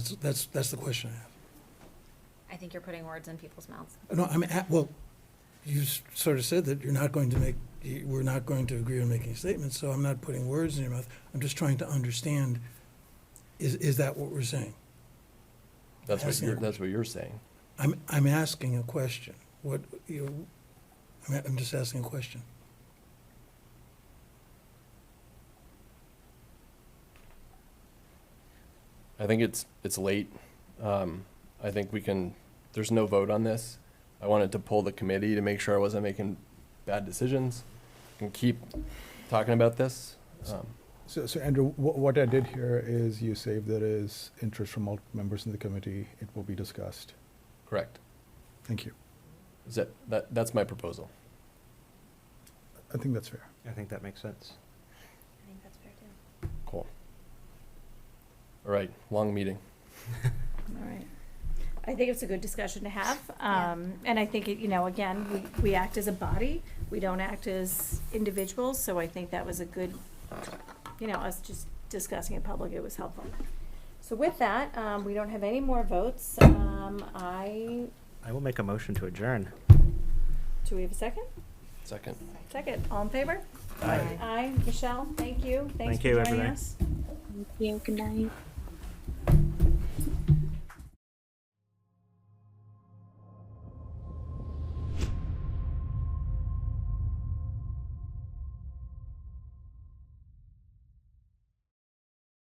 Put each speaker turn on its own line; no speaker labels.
That's, that's, that's the question I have.
I think you're putting words in people's mouths.
No, I'm, at- well, you s- sort of said that you're not going to make, you- we're not going to agree on making statements, so I'm not putting words in your mouth. I'm just trying to understand, is, is that what we're saying?
That's what
Asking a
you're, that's what you're saying.
I'm, I'm asking a question. What, you, know, I'm, I'm just asking a question.
I think it's, it's late. Um, I think we can, there's no vote on this. I wanted to pull the committee to make sure I wasn't making bad decisions and keep talking about this. Um,
So, so Andrew, what, what I did here is you say if there is interest from all members in the committee, it will be discussed.
Correct.
Thank you.
Is that, that, that's my proposal.
I think that's fair.
I think that makes sense.
I think that's fair too.
Cool. All right, long meeting.
All right. I think it's a good discussion to have.
Yeah.
Um, and I think, it- you know, again, we, we act as a body. We don't act as individuals, so I think that was a good, you know, us just discussing in public, it was helpful. So with that, um, we don't have any more votes. Um, I,
I will make a motion to adjourn.
do we have a second?
Second.
Second, all in favor? Aye. Michelle, thank you. Thanks
Thank
for
you,
joining
everybody.
us.
Thank you. Good night.